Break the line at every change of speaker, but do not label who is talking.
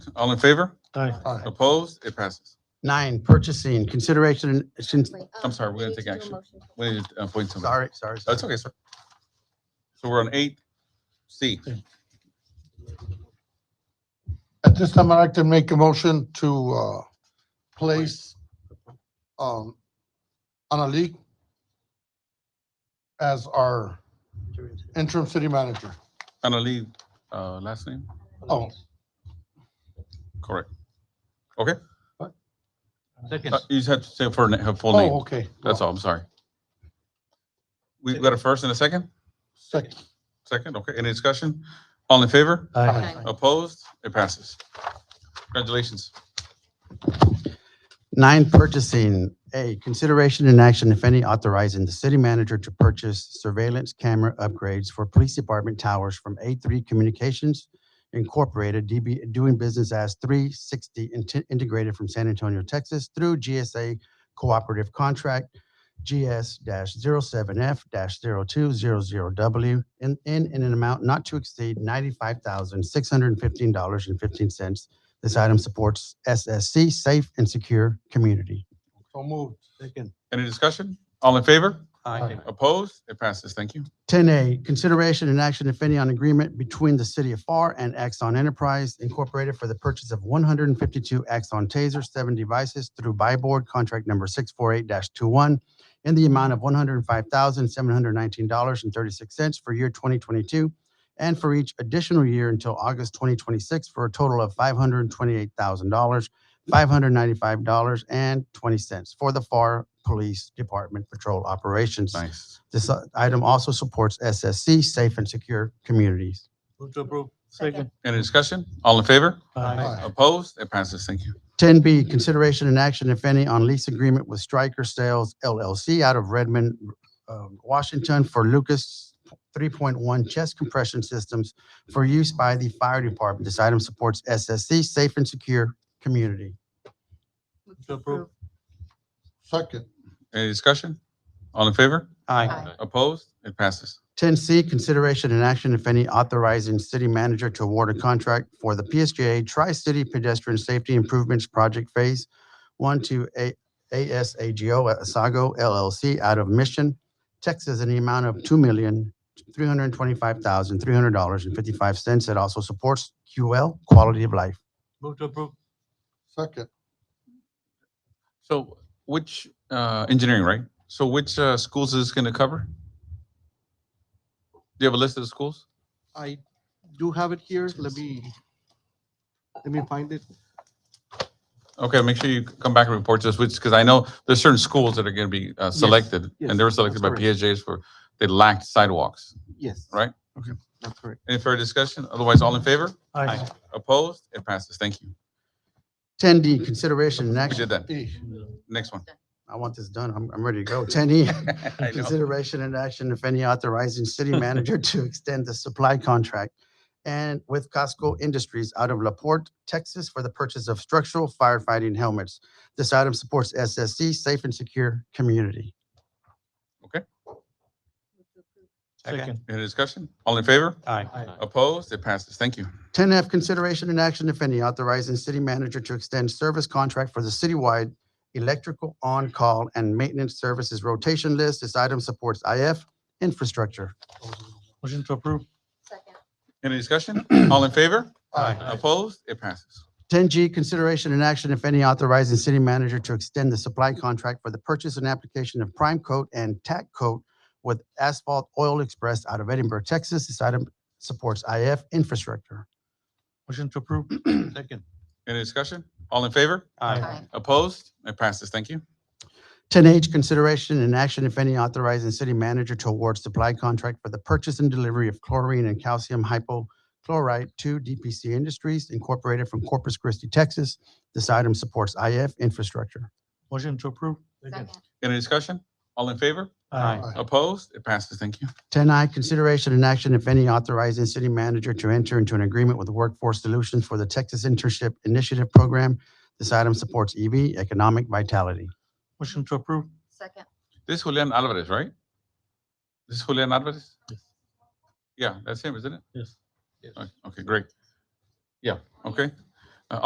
All in favor?
Aye.
Aye.
Opposed? It passes.
Nine, purchasing, consideration, since,
Wait,
I'm
oh,
sorry, we're
we
gonna
need
take
to do a
action.
motion.
We need to uh, appoint somebody.
sorry, sorry. sorry.
That's okay, sir. So we're on eight C.
At this time, I'd like to make a motion to, uh, place, um, Analik as our interim city manager.
Annalee, uh, last name?
Oh,
Correct. Okay,
Second.
Uh, you just have to say for her full
oh,
name.
okay.
That's all, I'm sorry. We've got a first and a second?
Second.
Second, okay. Any discussion? All in favor?
Aye.
Aye.
Opposed? It passes. Congratulations.
Nine, purchasing, A, consideration and action, if any, authorizing the city manager to purchase surveillance camera upgrades for police department towers from A3 Communications Incorporated, DB, doing business as 360 Inte- Integrated from San Antonio, Texas, through GSA Cooperative Contract GS-07F-0200W in, in, in an amount not to exceed $95,615.15. This item supports SSC Safe and Secure Community.
So moved.
Second.
Any discussion? All in favor?
Aye.
Opposed? It passes. Thank you.
10A, consideration and action, if any, on agreement between the City of FAR and Axon Enterprise Incorporated for the purchase of 152 Axon Taser 7 devices through Byboard Contract Number 648-21 in the amount of $105,719.36 for year 2022 and for each additional year until August 2026 for a total of $528,000, $595.20 for the FAR Police Department Patrol Operations.
Nice.
This uh, item also supports SSC, Safe and Secure Communities.
Move to approve.
Second.
Any discussion? All in favor?
Aye.
Aye.
Opposed? It passes. Thank you.
10B, consideration and action, if any, on lease agreement with Stryker Sales LLC out of Redmond, uh, Washington for Lucas 3.1 chest compression systems for use by the fire department. This item supports SSC, Safe and Secure Community.
Move to approve.
Second.
Any discussion? All in favor?
Aye.
Opposed? It passes.
Ten C, consideration and action, if any, authorizing city manager to award a contract for the PSJA Tri-City Pedestrian Safety Improvements Project Phase One to A- ASAGO Asago LLC out of Mission, Texas, in the amount of two million, three hundred and twenty-five thousand, three hundred dollars and fifty-five cents. It also supports QL, quality of life.
Move to approve.
Second.
So which, uh, engineering, right? So which, uh, schools is this gonna cover? Do you have a list of the schools?
I do have it here. Let me, let me find it.
Okay, make sure you come back and report to us, which, because I know there's certain schools that are gonna be, uh, selected,
yes,
and they were selected by
that's correct.
PSJs for, they lacked sidewalks.
Yes.
Right.
Okay, that's correct.
Any further discussion? Otherwise, all in favor?
Aye.
Opposed? It passes. Thank you.
Ten D, consideration and
We did
action,
that.
E.
Next one.
I want this done, I'm, I'm ready to go. Ten E,
I know.
Consideration and action, if any, authorizing city manager to extend the supply contract and with Costco Industries out of La Porte, Texas for the purchase of structural firefighting helmets. This item supports SSC, Safe and Secure Community.
Second.
Any discussion? All in favor?
Aye.
Opposed? It passes. Thank you.
Ten F, consideration and action, if any, authorizing city manager to extend service contract for the citywide electrical on-call and maintenance services rotation list. This item supports IF infrastructure.
Motion to approve.
Second.
Any discussion? All in favor? Opposed? It passes.
10G, consideration and action, if any, authorizing city manager to extend the supply contract for the purchase and application of prime coat and tack coat with Asphalt Oil Express out of Edinburgh, Texas. This item supports IF infrastructure.
Motion to approve. Second.
Any discussion? All in favor?
Aye.
Opposed? It passes. Thank you.
10H, consideration and action, if any, authorizing city manager to award supply contract for the purchase and delivery of chlorine and calcium hypochlorite to DPC Industries Incorporated from Corpus Christi, Texas. This item supports IF infrastructure.
Motion to approve.
Second.
Any discussion? All in favor?
Aye.
Opposed? It passes. Thank you.
Ten I, consideration and action, if any, authorizing city manager to enter into an agreement with Workforce Solutions for the Texas Internship Initiative Program. This item supports EV economic vitality.
Motion to approve.
Second.
This is Julian Alvarez, right? This is Julian Alvarez?
Yes.
Yeah, that's him, isn't it?
Yes.
Okay, Okay, great. Yeah, okay.